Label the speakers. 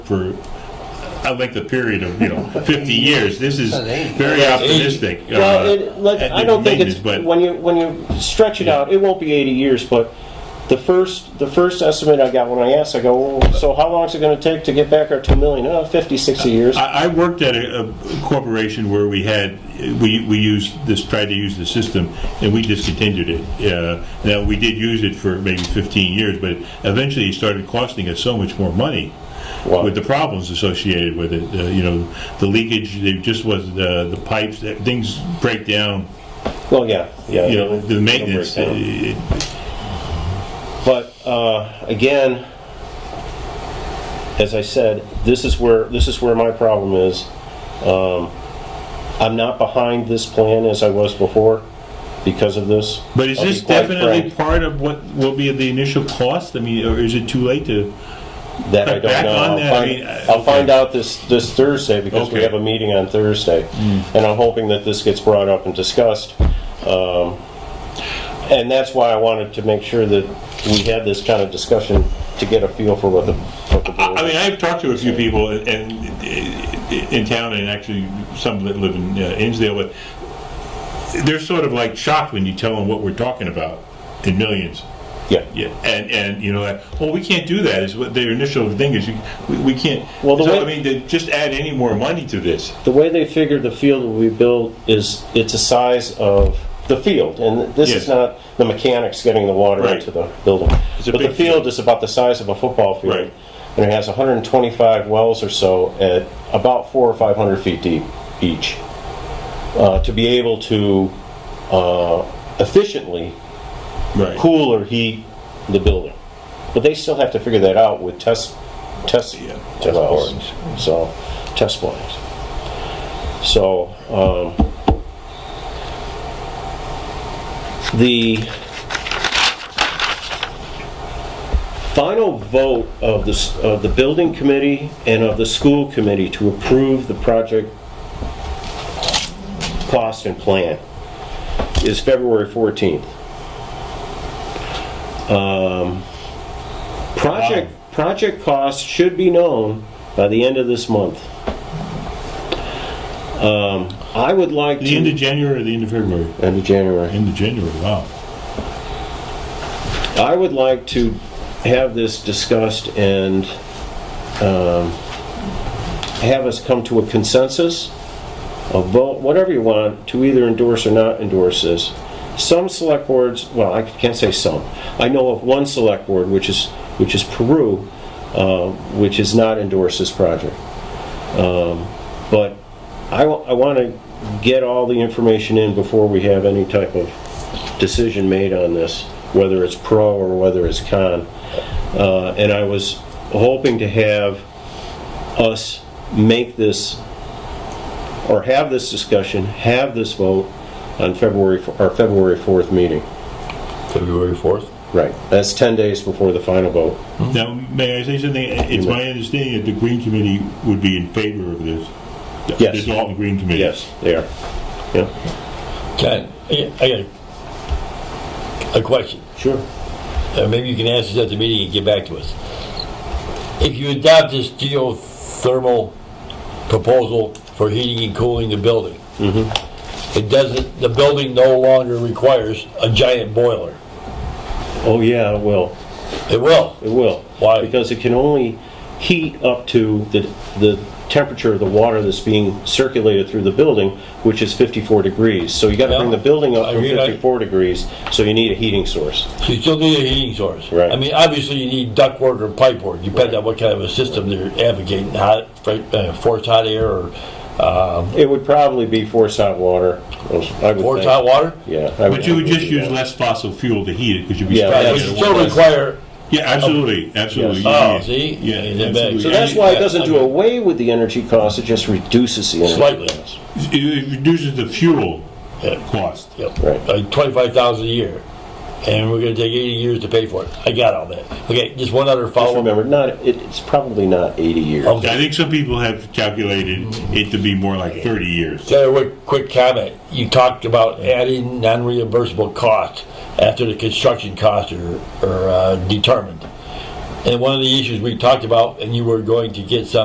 Speaker 1: for a length of period of, you know, 50 years. This is very optimistic. uh,
Speaker 2: Well, it, like,
Speaker 1: at
Speaker 2: I don't think
Speaker 1: maintenance,
Speaker 2: it's,
Speaker 1: but-
Speaker 2: when you, when you stretch it out, it won't be 80 years, but the first, the first estimate I got when I asked, I go, well, so how long is it gonna take to get back our 2 million? Uh, 50, 60 years.
Speaker 1: I, I worked at a, a corporation where we had we we used this tried to use the system and we discontinued it. Uh, now we did use it for maybe 15 years, but eventually it started costing us so much more money.
Speaker 2: Wow.
Speaker 1: With the problems associated with it, uh, you know, the leakage, it just was uh, the pipes, that- things break down.
Speaker 2: Well, yeah, yeah.
Speaker 1: You know, the maintenance.
Speaker 2: break
Speaker 1: uh,
Speaker 2: down.
Speaker 1: it-
Speaker 2: But uh, again, as I said, this is where this is where my problem is. Um, I'm not behind this plan as I was before because of this.
Speaker 1: But is
Speaker 2: I'll be
Speaker 1: this
Speaker 2: quite
Speaker 1: definitely
Speaker 2: frank,
Speaker 1: part of what will be the initial cost? I mean, or is it too late to?
Speaker 2: that I don't
Speaker 1: back
Speaker 2: know?
Speaker 1: on
Speaker 2: I'll,
Speaker 1: that? I
Speaker 2: find,
Speaker 1: mean, I-
Speaker 2: I'll find out this this Thursday because we
Speaker 1: Okay. Hmm.
Speaker 2: have a meeting on Thursday, and I'm hoping that this gets brought up and discussed. Um, and that's why I wanted to make sure that we had this kind of discussion to get a feel for what the. What the board
Speaker 1: I mean, I've talked to a few people in, in, in town, and actually some that live in uh, Innsdale, but they're sort of like shocked when you tell them what we're talking about in millions.
Speaker 2: yeah.
Speaker 1: Yeah, and and you know, like, well, we can't do that. Is what their initial thing is. You, we, we can't.
Speaker 2: Well, the
Speaker 1: so,
Speaker 2: way-
Speaker 1: I mean, to just add any more money to this.
Speaker 2: The way they figure the field will be built is, it's a size of the field, and this
Speaker 1: Yes.
Speaker 2: is not the mechanics getting the water
Speaker 1: Right.
Speaker 2: into the building.
Speaker 1: It's a
Speaker 2: But the
Speaker 1: big
Speaker 2: field is about the size of a football
Speaker 1: Right.
Speaker 2: field. And it has 125 wells or so at about four or 500 feet deep each, uh, to be able to uh, efficiently
Speaker 1: Right.
Speaker 2: cool or heat the building. But they still have to figure that out with test, test,
Speaker 1: Yeah,
Speaker 2: test boards. So, test boards. So, um, the final vote of the, s- of the building committee and of the school committee to approve the project cost and plan is February 14th. Um, Project, project costs should be known by the end of this month. Um, I would like to...
Speaker 1: The end of January or the end of February?
Speaker 2: End of January.
Speaker 1: End of January. Wow.
Speaker 2: I would like to have this discussed and um, have us come to a consensus, a vote, whatever you want, to either endorse or not endorse this. Some select boards, well, I can't say some. I know of one select board, which is, which is Peru, uh, which has not endorsed this project. Um, But I, want to get all the information in before we have any type of decision made on this, whether it's pro or whether it's con. Uh, And I was hoping to have us make this, or have this discussion, have this vote on February, f- our February 4th meeting.
Speaker 3: February 4th?
Speaker 2: Right. That's 10 days before the final vote.
Speaker 1: Now, may I say something? It's my understanding that the Green Committee would be in favor of this. The-
Speaker 2: Yes.
Speaker 1: The Dalton Green Committee.
Speaker 2: Yes, they are. Yeah,
Speaker 3: John, Uh, I I got a- a question.
Speaker 2: sure.
Speaker 3: Uh, Maybe you can answer this at the meeting and get back to us. If you adopt this geothermal proposal for heating and cooling the building,
Speaker 2: Mm-hmm.
Speaker 3: it doesn't, the building no longer requires a giant boiler.
Speaker 2: Oh, yeah, it will.
Speaker 3: It will.
Speaker 2: It will.
Speaker 3: Why?
Speaker 2: Because it can only heat up to the, the temperature of the water that's being circulated through the building, which is 54 degrees. So you gotta bring the
Speaker 3: Yeah.
Speaker 2: building up
Speaker 3: I
Speaker 2: from
Speaker 3: mean, I-
Speaker 2: 54 degrees, so you need a heating source.
Speaker 3: So you still need a heating source.
Speaker 2: Right.
Speaker 3: I mean, obviously you need ductwork or pipework, depending on what kind of a system they're advocating, hot, uh, forced hot air or um,
Speaker 2: It would probably be forced hot water, I would
Speaker 3: forced
Speaker 2: think.
Speaker 3: hot water.
Speaker 2: Yeah. I
Speaker 1: But you would
Speaker 2: think
Speaker 1: just
Speaker 2: do
Speaker 1: use
Speaker 2: that.
Speaker 1: less fossil fuel to heat it because you'd be.
Speaker 2: Yeah,
Speaker 1: spraying
Speaker 3: Right,
Speaker 1: it
Speaker 3: which
Speaker 1: at
Speaker 3: still
Speaker 1: once.
Speaker 3: require,
Speaker 1: Yeah, absolutely, absolutely.
Speaker 2: Yes.
Speaker 1: yeah,
Speaker 3: Oh,
Speaker 1: yeah.
Speaker 3: see?
Speaker 1: Yeah,
Speaker 3: Yeah, they're
Speaker 1: absolutely.
Speaker 3: big.
Speaker 2: So that's why it
Speaker 3: Yeah,
Speaker 2: doesn't do
Speaker 3: okay.
Speaker 2: away with the energy cost, it just reduces the energy.
Speaker 3: Slightly.
Speaker 2: cost.
Speaker 1: It- It reduces the fuel
Speaker 3: Yeah.
Speaker 1: cost.
Speaker 3: yep,
Speaker 2: Right.
Speaker 3: like twenty-five thousand a year, and we're gonna take eighty years to pay for it. I got all that. Okay, just one other
Speaker 2: Just
Speaker 3: follow-up.
Speaker 2: remember, not, it- it's probably not 80 years.
Speaker 3: Okay.
Speaker 1: I think some people have calculated it to be more like 30 years.
Speaker 3: So, a quick comment. You talked about adding non-reimbursable costs after the construction costs are, are uh, determined. And one of the issues we talked about, and you were going to get some